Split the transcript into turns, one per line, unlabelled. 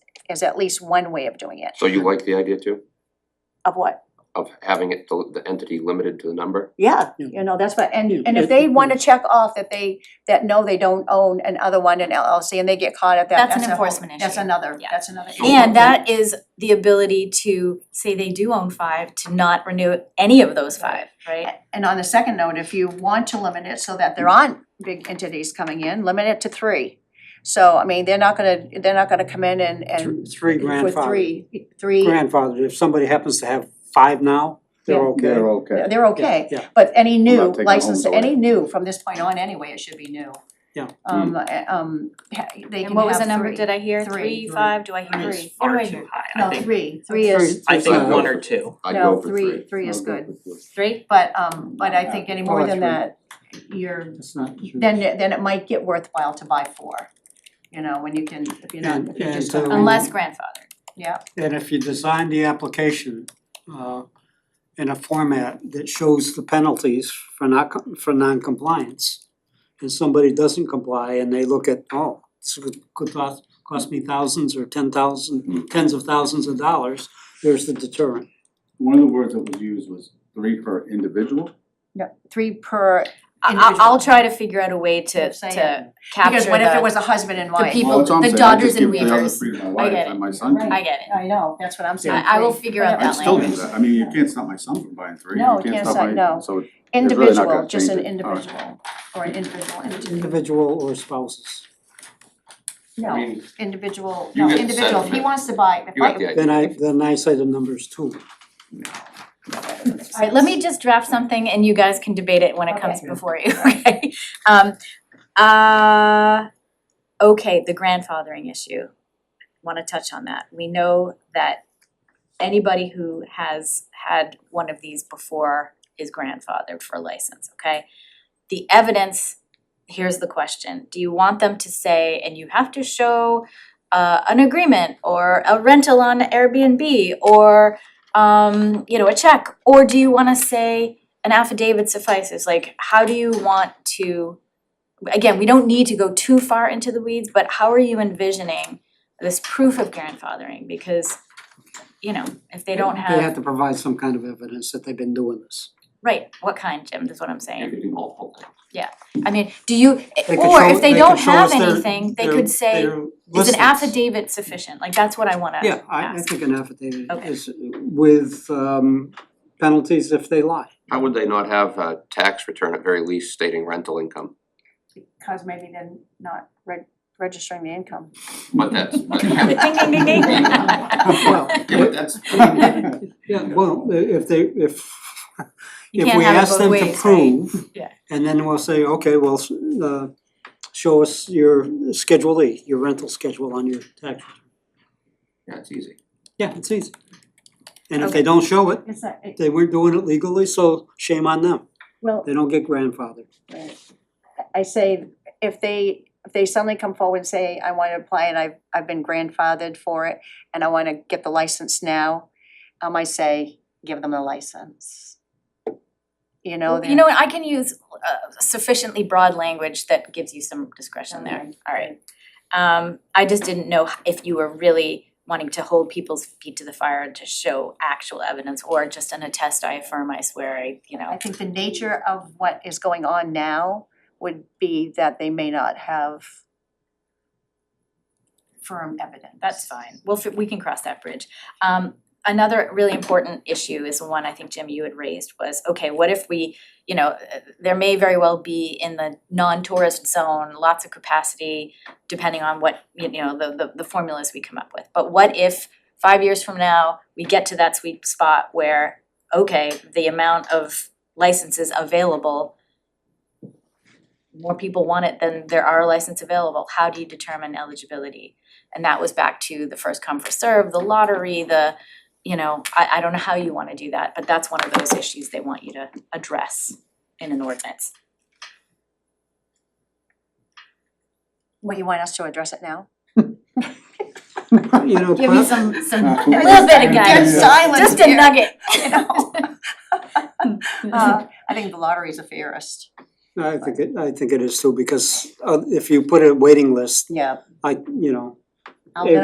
is at least one way of doing it.
So you like the idea too,
Of what?
of having it, the the entity limited to the number?
Yeah, you know, that's what, and
Yeah.
and if they wanna check off that they, that no, they don't own another one in LLC and they get caught at that,
That's an
that's a whole-
enforcement
That's
issue.
another,
Yeah.
that's another. issue.
And that is the ability to say they do own five, to not renew any of those five, right?
And on the second note, if you want to limit it so that there aren't big entities coming in, limit it to three. So, I mean, they're not gonna, they're not gonna come in and and
Th- Three
with
grandfathered,
three, three,
grandfathered, if somebody happens to have five now, they're
Yeah.
okay.
okay.
they're okay.
Yeah, yeah.
But any
not
new
taking
license,
homes away.
any new from this point on anyway, it should be new.
Yeah.
Um, uh, um, ha- they
And
can
what was the
have
number,
three.
did I hear?
Three.
Three, five, do I
Three
hear?
Three.
is far
What do I
too
hear?
high,
Oh, No,
I think,
three, three is,
Three,
I think
I'd
uh,
go
one or
for-
two.
I'd
No,
go for
three-
three.
three is
I'd go for three.
Three?
but, um, but I think any more
Or
than
three.
that, you're,
That's not true.
then, then it might get worthwhile to buy four. You know, when you can, if you're not,
And-
if you're
and
just.
to-
Unless grandfather.
And if you design the application uh in a format that shows the penalties for not co- for non-compliance. And somebody doesn't comply and they look at, oh, this could could cost cost me thousands or ten thousand, tens of thousands of dollars, there's the deterrent.
One of the words that was used was three per individual.
No, three per,
I- I-
Individual.
I'll try to figure out a way to
Just saying.
to
because
capture
what if it
the,
was a husband and
the
wife?
people-
Well, that's what I'm
the
saying, I just
Dodgers and
give the other
Weavers.
three to my
I
wife
get
and
it.
my son can.
I get it.
I know, that's what I'm saying.
I I will figure out
Whatever.
that
I'd still
language.
do that, I mean, you can't stop my son from buying three,
No,
you
you
can't
can't
stop
stop-
my,
no.
so really not
Individual,
gonna
just an
change it. All
individual,
right.
or an individual entity,
Individual or spouses.
I
no,
mean,
individual,
You
no,
get the
individual, if he
sentiment.
wants to buy, if
you got the
I.
idea.
Then I then I say the numbers too.
Alright, let me just draft something and you guys can debate it when it comes
Okay.
before you, okay? Um, uh, okay, the grandfathering issue, wanna touch on that. We know that anybody who has had one of these before is grandfathered for license, okay? The evidence, here's the question, do you want them to say, and you have to show uh an agreement or a rental on Airbnb or um, you know, a check, or do you wanna say an affidavit suffices, like, how do you want to? Again, we don't need to go too far into the weeds, but how are you envisioning this proof of grandfathering, because, you know, if they don't
They have
have,
to provide some kind of evidence that they've been doing this.
right, what kind, Jim, is what I'm saying.
You could do multiple things.
I mean, do you,
could
or
show-
if they
could
don't
show
have
us their-
anything, they
their-
could say,
their
is an
listings.
affidavit sufficient, like, that's what I wanna ask.
Yeah, I I think an affidavit
Okay.
is with um penalties if they lie.
How would they not have a tax return at very least stating rental income?
Cause maybe then not reg- registering the income.
But that's, but
Ding, ding, ding, ding.
Well,
yeah, but that's,
yeah, well, i- if they, if
You
if
can't
we
have it
ask
both
them
ways,
to
right?
prove,
Yeah.
and then we'll say, okay, well, s- uh show us your Schedule E, your rental schedule on your tax. return.
yeah, it's easy.
Yeah, it's easy. And if they don't show it,
It's not, it,
they weren't doing it legally, so shame on them.
well,
They don't get grandfathered.
right. I say, if they, if they suddenly come forward and say, I wanna apply and I've, I've been grandfathered for it, and I wanna get the license now, um, I say, give them the license. You know,
Well,
then.
You know, what, I can use uh, sufficiently broad language that gives you some discretion there, alright. Um, I just didn't know h- if you were really wanting to hold people's feet to the fire to show actual evidence or just an attest, I affirm, I swear, I, you
I
know.
think the nature of what is going on now would be that they may not have firm evidence.
That's fine, we'll, fi- we can cross that bridge. Um, another really important issue is one I think, Jim, you had raised was, okay, what if we, you know, uh, there may very well be in the non-tourist zone, lots of capacity, depending on what, you know, the the the formulas we come up with. But what if five years from now, we get to that sweet spot where, okay, the amount of licenses available, more people want it than there are licenses available, how do you determine eligibility? And that was back to the first come, first serve, the lottery, the, you know, I I don't know how you wanna do that, but that's one of those issues they want you to address in an ordinance.
What, you want us to address it now?
You know,
Give me
perhaps-
some some
Uh,
a little bit of guidance,
Yeah.
silence
just a
here,
nugget.
you know? Uh, I think the lottery's a fairest.
I think it, I think it is too, because uh if you put a waiting list,
Yeah.
I, you know,
I'll
It-